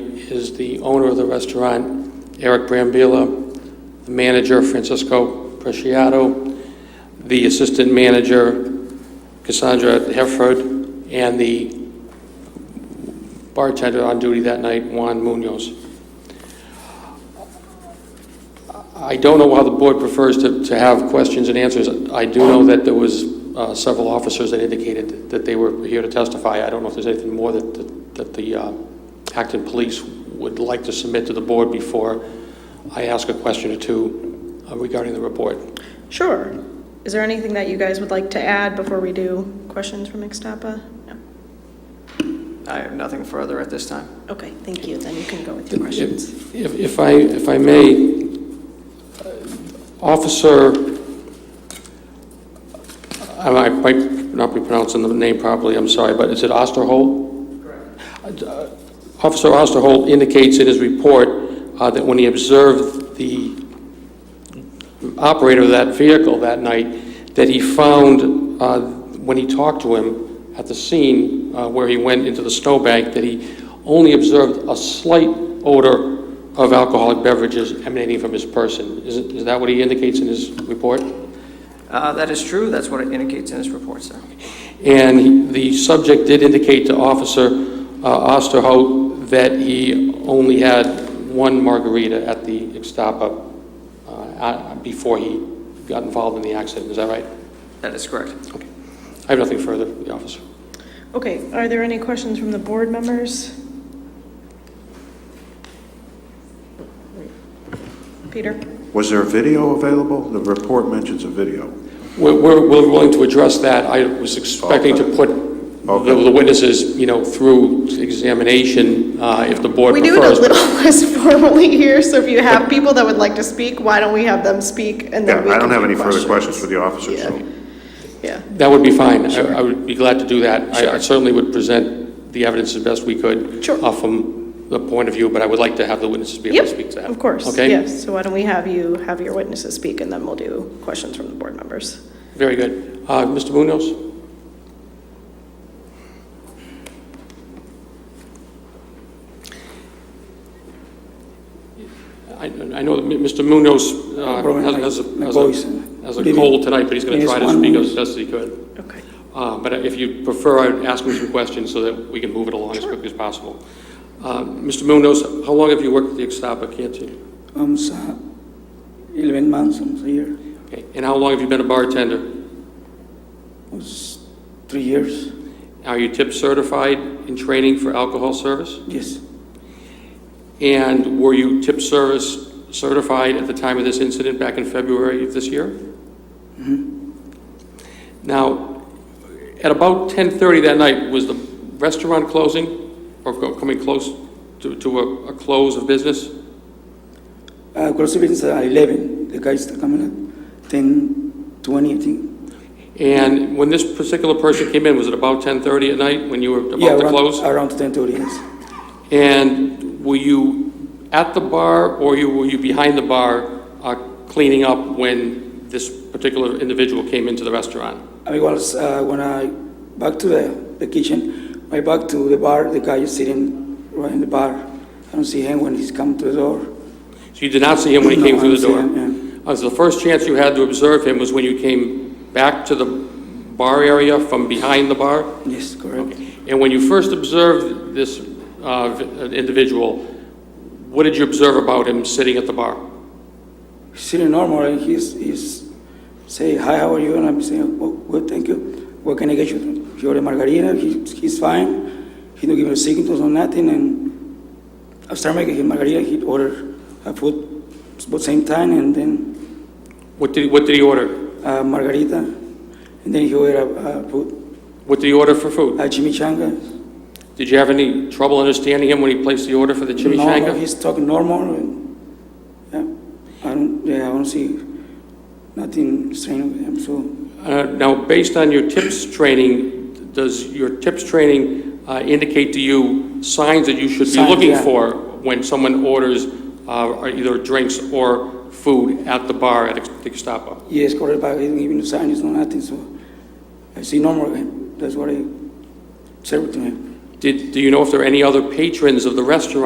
is the owner of the restaurant, Eric Brambilla, the manager, Francisco Preciado, the assistant manager, Cassandra Hefford, and the bartender on duty that night, Juan Munoz. I don't know how the board prefers to, to have questions and answers. I do know that there was uh, several officers that indicated that they were here to testify. I don't know if there's anything more that, that- that the uh, Acton Police would like to submit to the board before I ask a question or two uh, regarding the report. Sure. Is there anything that you guys would like to add before we do questions from Ixtapa? No. I have nothing further at this time. Okay, thank you. Then you can go with your questions. If, if I, if I may, uh, Officer, I might- might not be pronouncing the name properly, I'm sorry, but is it Osterholt? Correct. Officer Osterholt indicates in his report uh, that when he observed the operator of that vehicle that night, that he found, uh, when he talked to him at the scene uh, where he went into the snowbank, that he only observed a slight odor of alcoholic beverages emanating from his person. Is it- is that what he indicates in his report? Uh, That is true, that's what it indicates in this report, sir. And he- the subject did indicate to Officer uh, Osterhout that he only had one margarita at the Ixtapa uh, uh, before he got involved in the accident. Is that right? That is correct. Okay. I have nothing further, the officer. Okay, are there any questions from the board members? Peter? Was there a video available? The report mentions a video. We're, we're we're willing to address that. I was expecting to put the Okay. the witnesses, you know, through examination, uh, if the board We do it a prefers. but- little less formally here, so if you have people that would like to speak, why don't we have them speak and Yeah, then we I can don't have do any further questions for the officer, Yeah. so. Yeah, That would be fine. I I would be glad to do that. I- I certainly would present the evidence as best we could. Sure. uh, From the point of view, but I would like to have the witnesses be able to speak to yep, that. of course, Okay? yes. So why don't we have you, have your witnesses speak and then we'll do questions from the board members. Very good. Uh, Mr. Munoz? I I know that Mr. Munoz uh, has has a- has a has a cold tonight, but he's going to try to speak as best he could. Okay. Uh, But if you prefer, I'd ask him some questions so that we can move it along as quickly as possible. Uh, Mr. Munoz, how long have you worked at the Ixtapa Canteen? Almost uh, 11 months, almost a year, Okay, And how long have you been a bartender? almost three years. Are you tip certified in training for alcohol service? Yes, And were you tip service certified at the time of this incident back in February of this year? Mm-hmm. Now, at about 10:30 that night, was the restaurant closing or co- coming close to to a a close of business? uh, gross events are 11. The guys are coming at 10, 20, I think. And when this particular person came in, was it about 10:30 at night when you were yeah, about to around, close? around 10 to yes. And were you at the bar, or you, were you behind the bar uh, cleaning up when this particular individual came into the restaurant? I was uh, when I back to the, the kitchen, I back to the bar. The guy is sitting right in the bar. I don't see him when he's come to the door. So you did not see him when he No, came I through the door? didn't see him, Uh, so the first chance you had to observe him was when you came back to the bar area from behind the bar? Yes, correct. And when you first observed this uh, v- individual, what did you observe about him sitting at the bar? He's sitting normal and he's, he's say hi, how are you? And I'm saying, oh, good, thank you. What can I get you? He ordered margarita. He, he's fine. He don't give me signals or nothing. And after making him margarita, he ordered a food about same time and then What did, he- what did he order? uh, margarita, and then he ordered a, a food, What did he order for food? a chimichanga. Did you have any trouble understanding him when he placed the order for the No, chimichanga? he's talking normal. And, yeah, I don't, yeah, I don't see nothing strange with him. So. Uh, Now, based on your TIPS training, does your TIPS training uh, indicate to you signs that you should be Signs, looking yeah. for when someone orders uh, either drinks or food at the bar at the Gestapo? Yes, correct, but he didn't give me Eh, no sign, it's no nothing, so I see normal him. That's what I served to him. Did, do you know if there are any other patrons of the restaurant